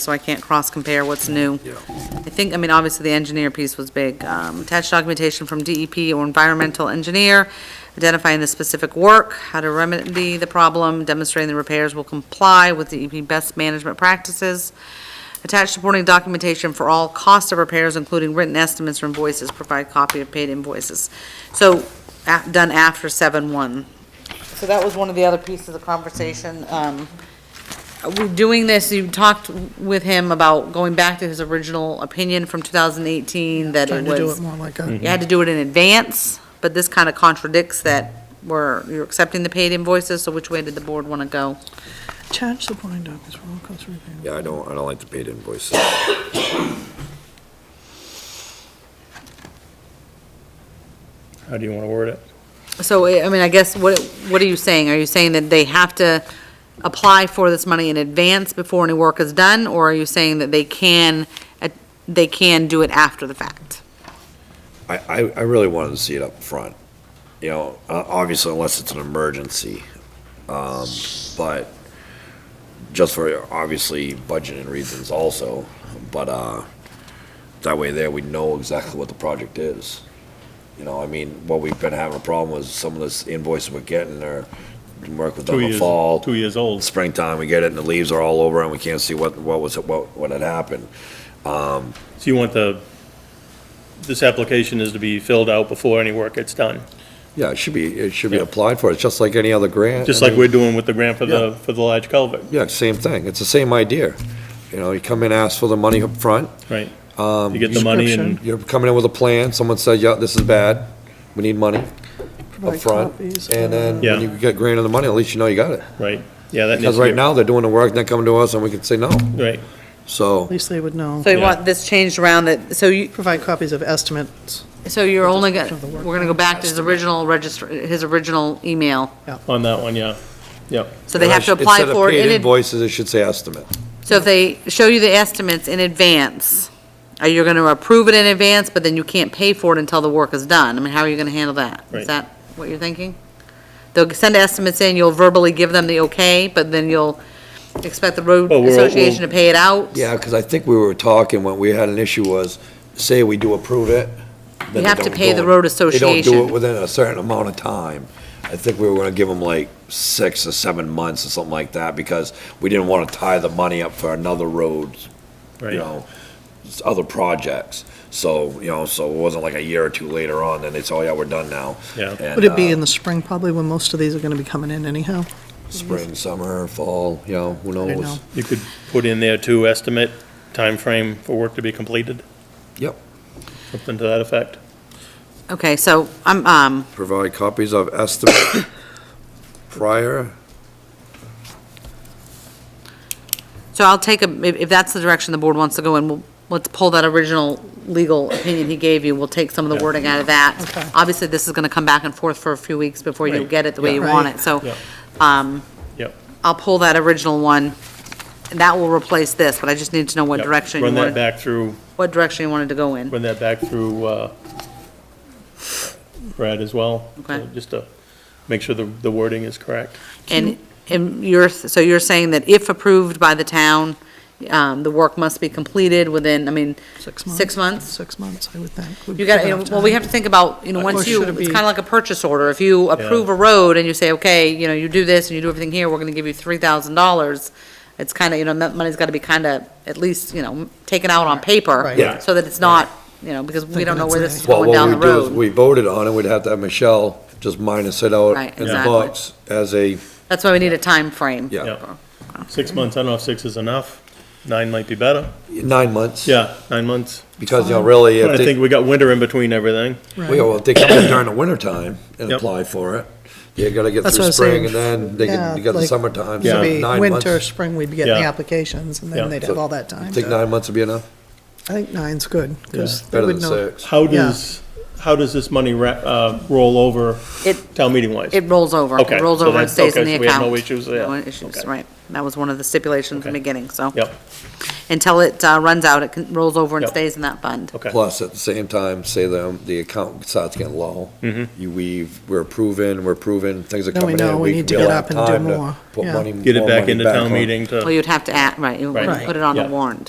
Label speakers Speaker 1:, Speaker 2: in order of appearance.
Speaker 1: so I can't cross-compare what's new. I think, I mean, obviously, the engineer piece was big. Um, Attached documentation from DEP or environmental engineer, identifying the specific work, how to remedy the problem, demonstrating the repairs will comply with DEP best management practices. Attached supporting documentation for all cost of repairs, including written estimates or invoices, provide copy of paid invoices. So, a- done after 7-1. So that was one of the other pieces of conversation. Um, we're doing this, you talked with him about going back to his original opinion from 2018 that it
Speaker 2: Trying to do it
Speaker 1: was,
Speaker 2: more like a,
Speaker 1: you had to do it in advance, but this kind of contradicts that we're, you're accepting the paid invoices, so which way did the board want to go?
Speaker 2: charge the blind office for all costs review.
Speaker 3: Yeah, I don't, I don't like the paid invoices.
Speaker 4: How do you want to word it?
Speaker 1: So, I I mean, I guess, what, what are you saying? Are you saying that they have to apply for this money in advance before any work is done? Or are you saying that they can, uh, they can do it after the fact?
Speaker 3: I, I, I really wanted to see it up front, you know, uh, obviously unless it's an emergency. Um, but just for obviously budgeting reasons also, but, uh, that way there we know exactly what the project is. You know, I mean, what we've been having a problem with some of this invoices we're getting are, we work with them
Speaker 4: Two
Speaker 3: in the
Speaker 4: years,
Speaker 3: fall.
Speaker 4: two years old.
Speaker 3: Springtime, we get it and the leaves are all over and we can't see what, what was, what, what had happened. Um,
Speaker 4: So you want the, this application is to be filled out before any work gets done?
Speaker 3: Yeah, it should be, it should be
Speaker 4: Yeah.
Speaker 3: applied for, it's just like any other grant.
Speaker 4: Just
Speaker 3: I
Speaker 4: like
Speaker 3: mean,
Speaker 4: we're doing with the grant for the,
Speaker 3: Yeah.
Speaker 4: for the large culvert,
Speaker 3: Yeah, same thing, it's the same idea. You know, you come in, ask for the money up front.
Speaker 4: right?
Speaker 3: um,
Speaker 4: You get the money and,
Speaker 3: You're coming in with a plan, someone says, yeah, this is bad, we need money up
Speaker 2: Provide
Speaker 3: front.
Speaker 2: copies,
Speaker 3: And then
Speaker 4: Yeah.
Speaker 3: when you get granted the money, at least you know you got it.
Speaker 4: right, yeah, that needs
Speaker 3: Because
Speaker 4: to be,
Speaker 3: right now, they're doing the work, they're coming to us, and we can say no.
Speaker 4: right,
Speaker 2: At
Speaker 3: So,
Speaker 2: least they would know.
Speaker 1: So you
Speaker 4: Yeah.
Speaker 1: want this changed around that, so you,
Speaker 2: Provide copies of estimates.
Speaker 1: So you're only gonna,
Speaker 2: of the work
Speaker 1: we're gonna go back to his original register, his original email.
Speaker 4: on that one, yeah, yeah.
Speaker 1: So they have to apply
Speaker 3: Instead of
Speaker 1: for it.
Speaker 3: paid
Speaker 1: in ad-
Speaker 3: invoices, it should say estimate.
Speaker 1: So if they show you the estimates in advance, are you gonna approve it in advance, but then you can't pay for it until the work is done? I mean, how are you gonna handle that? Is
Speaker 4: Right.
Speaker 1: that what you're thinking? They'll send estimates in, you'll verbally give them the okay, but then you'll expect the road
Speaker 4: Well, we'll-
Speaker 1: association to pay it out?
Speaker 3: Yeah, because I think we were talking, when we had an issue was, say we do approve it. then
Speaker 1: You
Speaker 3: they
Speaker 1: have to
Speaker 3: don't
Speaker 1: pay
Speaker 3: do
Speaker 1: the
Speaker 3: it.
Speaker 1: road
Speaker 3: They don't
Speaker 1: association.
Speaker 3: do it within a certain amount of time. I think we were gonna give them like six or seven months or something like that, because we didn't want to tie the money up for another road, you
Speaker 4: Right.
Speaker 3: know, s- other projects. So, you know, so it wasn't like a year or two later on, then they say, oh yeah, we're done now.
Speaker 4: Yeah.
Speaker 3: And,
Speaker 2: Would it be
Speaker 3: uh,
Speaker 2: in the spring, probably, when most of these are going to be coming in anyhow?
Speaker 3: Spring, summer, fall, you know, who
Speaker 2: don't
Speaker 3: knows?
Speaker 2: know.
Speaker 4: You could put in there to estimate time frame for work to be completed,
Speaker 3: Yep,
Speaker 4: something to that effect.
Speaker 1: Okay, so I'm, um,
Speaker 3: provide copies of estimate prior,
Speaker 1: So I'll take, a if if that's the direction the board wants to go in, we'll- let's pull that original legal opinion he gave you, we'll take some of the
Speaker 4: Yeah.
Speaker 1: wording out of
Speaker 2: Okay.
Speaker 1: that. Obviously, this is going to come back and forth for a few weeks before you
Speaker 4: Right.
Speaker 1: get it the way you
Speaker 2: Yeah.
Speaker 1: want
Speaker 2: Right.
Speaker 1: it, so
Speaker 4: Yeah.
Speaker 1: um,
Speaker 4: Yep.
Speaker 1: I'll pull that original one, and that will replace this, but I just need to know what
Speaker 4: Yep.
Speaker 1: direction you
Speaker 4: Run that
Speaker 1: wanted,
Speaker 4: back through,
Speaker 1: what direction you wanted to go in.
Speaker 4: run that back through, uh, Brad as well.
Speaker 1: Okay.
Speaker 4: uh, Just to make sure the, the wording is correct.
Speaker 1: And, and you're, so you're saying that if approved by the town, um, the work must be completed within, I mean,
Speaker 2: Six months?
Speaker 1: six months?
Speaker 2: Six months, I would think. would
Speaker 1: You
Speaker 2: give
Speaker 1: gotta, you know,
Speaker 2: enough
Speaker 1: well, we
Speaker 2: time.
Speaker 1: have to think about, you know, once
Speaker 2: Or
Speaker 1: you,
Speaker 2: should it
Speaker 1: it's
Speaker 2: be-
Speaker 1: kind of like a purchase order. If you approve a road and you say, okay, you know, you do this and you do everything here, we're gonna give you three thousand dollars, it's kind of, you know, that money's gotta be kind of, at least, you know, taken out on paper.
Speaker 2: Right.
Speaker 3: Yeah.
Speaker 1: So that it's not, you know, because we don't know where this is
Speaker 2: Thinking
Speaker 1: going
Speaker 3: Well, what
Speaker 1: down
Speaker 3: we
Speaker 1: the
Speaker 3: do is,
Speaker 1: road.
Speaker 3: we voted on it, we'd have to have Michelle just minus it out
Speaker 1: Right,
Speaker 3: in the
Speaker 1: exactly.
Speaker 3: books as a,
Speaker 1: That's why we need a time frame.
Speaker 3: yeah,
Speaker 4: Yeah. Six months, I don't know if six is enough. Nine might be better.
Speaker 3: nine months.
Speaker 4: Yeah, nine months.
Speaker 3: Because, you know, really,
Speaker 4: I
Speaker 3: if
Speaker 4: think
Speaker 3: they,
Speaker 4: we got winter in between everything.
Speaker 2: Right.
Speaker 3: well, if they come in during the wintertime and
Speaker 4: Yep.
Speaker 3: apply for it, you gotta get
Speaker 2: That's what I
Speaker 3: through
Speaker 2: was saying.
Speaker 3: spring and then they
Speaker 2: Yeah,
Speaker 3: can, you got the
Speaker 2: like,
Speaker 3: summertime,
Speaker 2: It'd
Speaker 3: so
Speaker 2: be
Speaker 3: nine
Speaker 2: winter,
Speaker 3: months.
Speaker 2: spring, we'd be getting the
Speaker 4: Yeah.
Speaker 2: applications, and
Speaker 4: Yeah.
Speaker 2: then they'd have all that time.
Speaker 3: Think
Speaker 2: to-
Speaker 3: nine months would be enough?
Speaker 2: I think nine's good, because they
Speaker 3: Better
Speaker 2: would
Speaker 3: than
Speaker 2: know.
Speaker 3: six.
Speaker 4: How
Speaker 2: Yeah.
Speaker 4: does, how does this money ra- uh, roll over
Speaker 1: It,
Speaker 4: town meeting wise?
Speaker 1: it rolls over.
Speaker 4: Okay,
Speaker 1: It rolls
Speaker 4: so
Speaker 1: over and
Speaker 4: that's-
Speaker 1: stays in
Speaker 4: okay,
Speaker 1: the
Speaker 4: so we have
Speaker 1: account.
Speaker 4: no issues there.
Speaker 1: No issues,
Speaker 4: Okay.
Speaker 1: right. That was one of the stipulations in the
Speaker 4: Okay.
Speaker 1: beginning, so.
Speaker 4: Yep,
Speaker 1: until it uh, runs out, it can- rolls over and
Speaker 4: Yep.
Speaker 1: stays in that fund.
Speaker 4: Okay.
Speaker 3: Plus, at the same time, say the, the account starts getting low.
Speaker 4: Mm-hmm.
Speaker 3: You weave, we're approving, we're approving, things are
Speaker 2: Then we
Speaker 3: coming in.
Speaker 2: know we need to
Speaker 3: we'll
Speaker 2: get
Speaker 3: have
Speaker 2: up and do
Speaker 3: time to
Speaker 2: more,
Speaker 3: Put
Speaker 2: yeah.
Speaker 3: money.
Speaker 4: Get it
Speaker 3: more
Speaker 4: back
Speaker 3: money
Speaker 4: into town
Speaker 3: on.
Speaker 4: meeting to.
Speaker 1: Well, you'd have to act, right, you would
Speaker 4: Right.
Speaker 1: put it on the
Speaker 4: Yeah.
Speaker 1: warrant.